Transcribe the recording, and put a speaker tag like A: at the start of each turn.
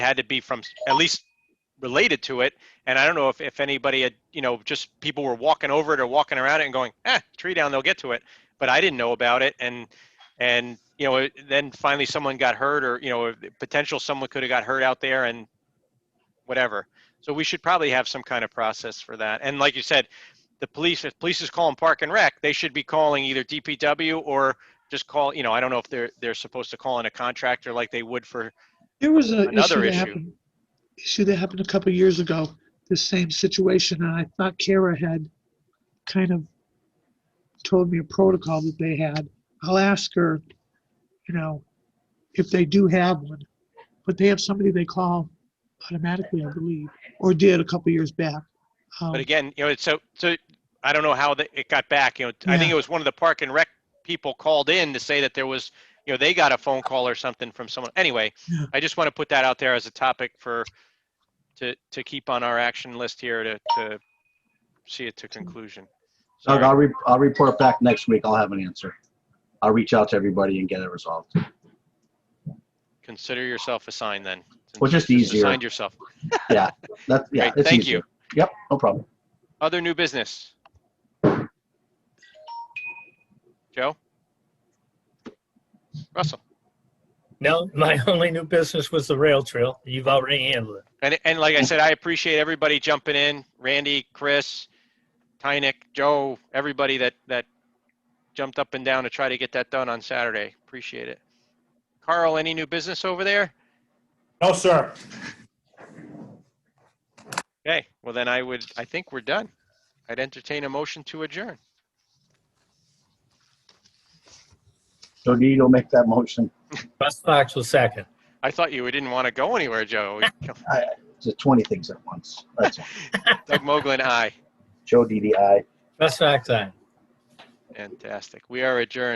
A: had to be from s- at least related to it. And I don't know if, if anybody had, you know, just people were walking over it or walking around it and going, eh, tree down, they'll get to it. But I didn't know about it. And, and, you know, it- then finally someone got hurt or, you know, if- potential someone could have got hurt out there and whatever. So we should probably have some kind of process for that. And like you said, the police, if police is calling park and rec, they should be calling either DPW or just call, you know, I don't know if they're, they're supposed to call in a contractor like they would for
B: There was a
A: Another
B: issue that
A: issue.
B: happened, issue that happened a couple of years ago, the same situation, and I thought Kara had kind of told me a protocol that they had. I'll ask her, you know, if they do have one, but they have somebody they call automatically, I believe, or did a couple of years back. Um,
A: But again, you know, it's so, so, I don't know how the- it got back, you know, I think
B: Yeah.
A: it was one of the park and rec people called in to say that there was, you know, they got a phone call or something from someone. Anyway,
B: Yeah.
A: I just want to put that out there as a topic for, to, to keep on our action list here to, to see it to conclusion.
C: Doug,
A: Sorry.
C: I'll, re- I'll report back next week. I'll have an answer. I'll reach out to everybody and get it resolved.
A: Consider yourself assigned then.
C: Well, just
A: Since you
C: easier.
A: Assigned yourself.
C: That's, yeah,
A: Great,
C: it's
A: thank
C: easier.
A: you.
C: Yep, no problem.
A: Other new business? Joe? Russell?
D: No, my only new business was the rail trail. You've already handled it.
A: And, and like I said, I appreciate everybody jumping in, Randy, Chris, Tynick, Joe, everybody that, that jumped up and down to try to get that done on Saturday. Appreciate it. Carl, any new business over there?
E: No, sir.
A: Okay, well then I would, I think we're done. I'd entertain a motion to adjourn.
C: So do you go make that motion?
D: Russ Fox was second.
A: I thought you didn't want to go anywhere, Joe.
C: It's 20 things at once. That's all.
A: Doug Moglen, aye.
C: Joe DDI.
D: Russ Fox, aye.
A: Fantastic. We are adjourned.